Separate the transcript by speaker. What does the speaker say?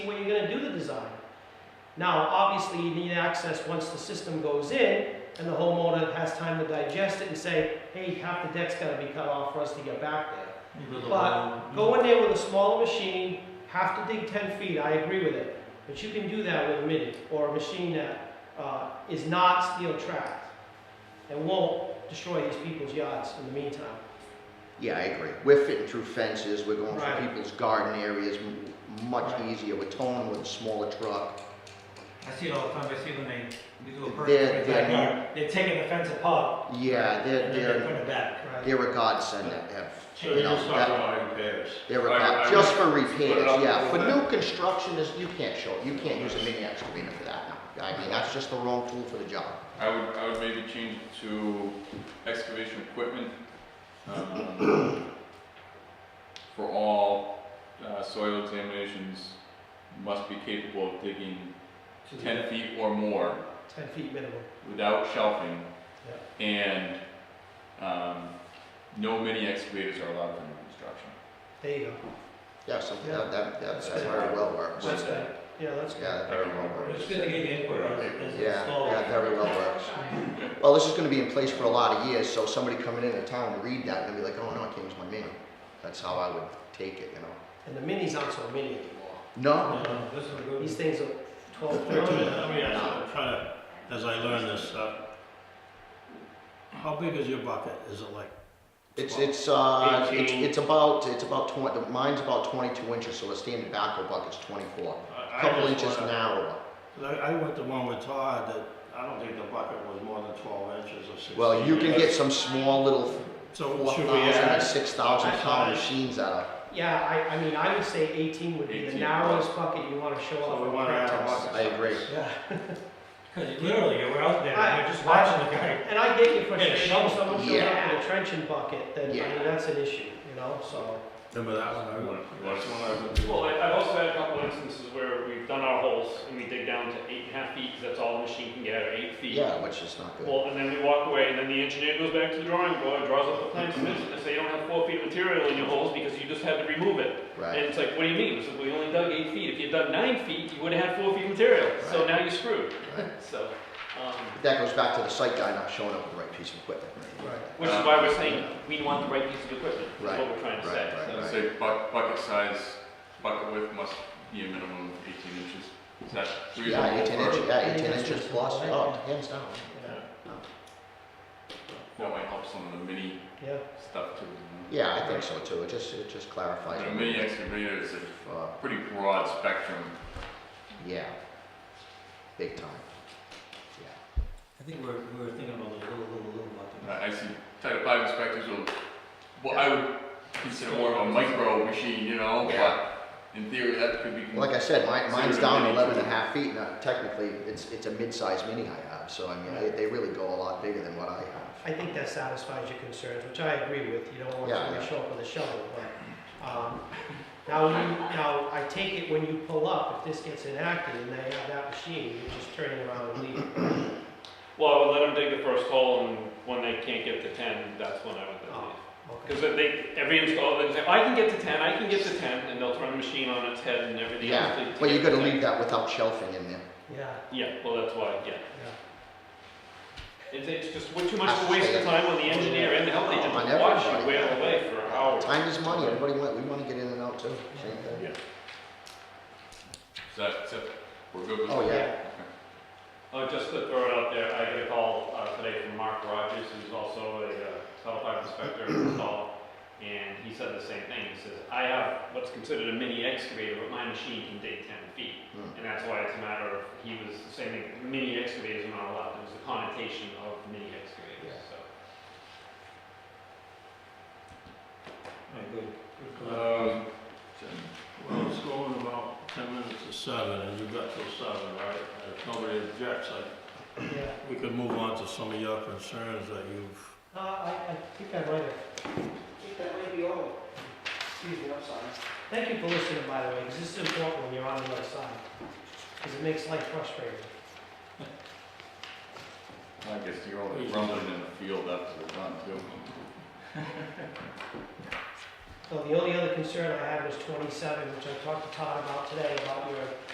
Speaker 1: when you're gonna do the design. Now, obviously, you need access once the system goes in, and the homeowner has time to digest it and say, hey, half the deck's gotta be cut off for us to get back there. But go in there with a smaller machine, have to dig ten feet, I agree with it, but you can do that with a mini, or a machine that, uh, is not steel trapped, and won't destroy these people's yards in the meantime.
Speaker 2: Yeah, I agree. We're fitting through fences, we're going
Speaker 1: Right.
Speaker 2: through people's garden areas, m- much
Speaker 1: Right.
Speaker 2: easier. We're towing with a smaller truck.
Speaker 3: I see it all the time, I see when they, they do a
Speaker 2: They're-
Speaker 3: perk,
Speaker 2: they're-
Speaker 3: they're taking the fence apart,
Speaker 2: Yeah, they're,
Speaker 3: and then they
Speaker 2: they're,
Speaker 3: put it back.
Speaker 1: Right.
Speaker 2: they're a godsend that have,
Speaker 4: So
Speaker 2: you
Speaker 4: you're
Speaker 2: know,
Speaker 4: just talking
Speaker 2: that,
Speaker 4: about repairs?
Speaker 2: they're a
Speaker 4: Right,
Speaker 2: god,
Speaker 4: I
Speaker 2: just
Speaker 4: would-
Speaker 2: for
Speaker 4: put it
Speaker 2: repairs,
Speaker 4: up a
Speaker 2: yeah. For
Speaker 4: little
Speaker 2: new
Speaker 4: bit.
Speaker 2: construction, is you can't show, you can't use a mini excavator for that. no. I mean, that's just the wrong tool for the job.
Speaker 4: I would, I would maybe change it to excavation equipment, um, for all, uh, soil examinations must be capable of digging ten feet or more
Speaker 1: Ten feet minimum,
Speaker 4: without shelving, and, um, no mini excavators are allowed for new construction.
Speaker 1: there you go,
Speaker 2: Yeah, something,
Speaker 1: Yeah.
Speaker 2: that, that, that
Speaker 4: That's
Speaker 2: that
Speaker 4: good.
Speaker 2: very well works. Yeah,
Speaker 1: that's good, yeah, that's good.
Speaker 2: that very well
Speaker 3: But It's
Speaker 2: works.
Speaker 3: good to get your input on it, as it's
Speaker 2: Yeah,
Speaker 3: installed.
Speaker 2: that very well works. Well, this is gonna be in place for a lot of years, so somebody coming into town and read that, and be like, oh no, I can't use my mini. That's how I would take it, you know?
Speaker 1: And the minis aren't so mini anymore.
Speaker 2: No,
Speaker 3: No, no, this is a good.
Speaker 1: These things are 12,
Speaker 5: Wait a
Speaker 1: 13.
Speaker 5: minute, Let me ask you, I'm trying to, as I learn this, uh, how big is your bucket? Is it like?
Speaker 2: it's,
Speaker 5: 12?
Speaker 2: it's, uh, it's,
Speaker 5: 18.
Speaker 2: it's about, it's about twenty, mine's about twenty-two inches, so a standard backhoe bucket's twenty-four.
Speaker 5: I- I
Speaker 2: Couple
Speaker 5: just
Speaker 2: inches
Speaker 5: wanna-
Speaker 2: narrower.
Speaker 5: 'cause I, I went to one with Todd that, I don't think the bucket was more than twelve inches or sixteen.
Speaker 2: Well, you can
Speaker 5: inches.
Speaker 2: get some small little
Speaker 5: So
Speaker 2: four
Speaker 5: should
Speaker 2: thousand
Speaker 5: we
Speaker 2: or
Speaker 5: add?
Speaker 2: six thousand pound
Speaker 5: Outside.
Speaker 2: machines out of,
Speaker 1: Yeah, I, I mean, I would say 18 would be the
Speaker 4: 18.
Speaker 1: narrowest bucket you want to show off.
Speaker 5: So we
Speaker 1: with
Speaker 5: wanna
Speaker 1: crack
Speaker 5: add a
Speaker 1: test.
Speaker 5: bucket.
Speaker 2: I agree.
Speaker 3: Yeah. Cause you literally, you were out there,
Speaker 1: I-
Speaker 3: and you're just watching the guy.
Speaker 1: And I get your
Speaker 3: Yeah,
Speaker 1: frustration, if someone shows up
Speaker 2: yeah.
Speaker 1: with a trenching bucket, then, I
Speaker 2: Yeah.
Speaker 1: mean, that's an issue, you know, so.
Speaker 5: Remember that one? I
Speaker 4: You
Speaker 5: went-
Speaker 4: want- you want-
Speaker 5: that's one I went-
Speaker 6: Well, I- I've also had a couple instances where we've done our holes and we dig down to eight and a half feet because that's all the machine can get, or eight feet.
Speaker 2: Yeah, which is not good.
Speaker 6: Well, and then we walk away and then the engineer goes back to the drawing board, draws up the plan, submits it, and say you don't have four feet of material in your holes because you just had to remove it. And
Speaker 2: Right,
Speaker 6: it's like, what do you mean? So we only dug eight feet. If you'd dug nine feet, you would have had four feet of material. So
Speaker 2: Right.
Speaker 6: now you're screwed.
Speaker 2: right.
Speaker 6: So, um,
Speaker 2: But that goes back to the site guy not showing up with the right piece of equipment.
Speaker 6: which
Speaker 4: Uh,
Speaker 6: is why we're saying we want the right piece of equipment, is
Speaker 2: Um, Right,
Speaker 6: what we're trying to
Speaker 2: right,
Speaker 6: say.
Speaker 2: right,
Speaker 6: So-
Speaker 4: I'd say buck, bucket size, bucket width must be a minimum of eighteen inches, is that reasonable?
Speaker 2: Yeah, eighteen
Speaker 4: for-
Speaker 2: inches, yeah,
Speaker 1: think
Speaker 2: eighteen
Speaker 1: that's
Speaker 2: inches
Speaker 1: reasonable,
Speaker 2: plus,
Speaker 1: right?
Speaker 2: oh, hands down.
Speaker 1: Yeah,
Speaker 4: That might help some of the mini
Speaker 1: yeah,
Speaker 4: stuff too. you know?
Speaker 2: Yeah, I think so too, it just, it just clarifies.
Speaker 4: But a
Speaker 2: it.
Speaker 4: mini excavator is a
Speaker 2: Uh,
Speaker 4: pretty broad spectrum.
Speaker 2: Yeah. Big time. Yeah.
Speaker 3: I think we're, we were thinking about the little, little, little bucket.
Speaker 4: Uh, I I see Title Five inspectors will, well, I would consider more of a micro machine, you know,
Speaker 2: Yeah.
Speaker 4: but in theory, that could be.
Speaker 2: Like I said, mine,
Speaker 4: Consider
Speaker 2: mine's
Speaker 4: it a
Speaker 2: down
Speaker 4: mini.
Speaker 2: eleven and a half feet, now technically, it's, it's a mid-sized mini I have, so I mean, they, they really go a lot bigger than what I have.
Speaker 1: I think that satisfies your concerns, which I agree with, you don't want
Speaker 2: Yeah,
Speaker 1: someone to
Speaker 2: yeah.
Speaker 1: show up with a shovel, but, um, now, you, now, I take it when you pull up, if this gets enacted and they have that machine, you're just turning around and leaving.
Speaker 6: Well, I would let them dig the first hole, and when they can't get to ten, that's when I would
Speaker 1: Oh,
Speaker 6: leave.
Speaker 1: Okay.
Speaker 6: Because they, every installer, they say, "Oh, I can get to ten, I can get to ten, and they'll turn the machine on its head and everything else.
Speaker 2: Yeah,
Speaker 6: to- to
Speaker 2: well, you
Speaker 6: get to
Speaker 2: gotta
Speaker 6: 10.
Speaker 2: leave that without shelving in there.
Speaker 1: Yeah,
Speaker 6: Yeah, well, that's why, yeah.
Speaker 1: yeah,
Speaker 6: It's, it's just way too much of a waste of time on the engineer and the health agent
Speaker 2: On
Speaker 6: to watch
Speaker 2: everybody.
Speaker 6: you wail away for an hour.
Speaker 2: Time is money, everybody want, we wanna get in and out too, same thing.
Speaker 4: Is that, is that, we're good with
Speaker 2: Oh,
Speaker 4: that?
Speaker 2: yeah,
Speaker 6: Oh, just to throw it out there, I got a call uh, today from Mark Rogers, who's also a uh, Title V inspector in install, and he said the same thing. He says, I have what's considered a mini excavator, but my machine can dig 10 feet.
Speaker 2: Hmm.
Speaker 6: And that's why it's a matter of, he was saying that mini excavators are not allowed. There's a connotation of mini excavators, so.
Speaker 3: Alright, good, good,
Speaker 6: Uh,
Speaker 3: good.
Speaker 4: Um,
Speaker 5: Well, it's going about ten minutes to seven, and you've got till seven, right? And If nobody objects, I,
Speaker 1: yeah.
Speaker 5: we could move on to some of your concerns that you've
Speaker 1: Uh, I, I think I might have. I think that might be all. Excuse me, I'm sorry. Thank you for listening, by the way, because this is important when you're on the other side, because it makes life frustrating.
Speaker 4: I guess you're all rumbling in the field after we're done too.
Speaker 1: So the only other concern I had was twenty-seven, which I talked to Todd about today, about your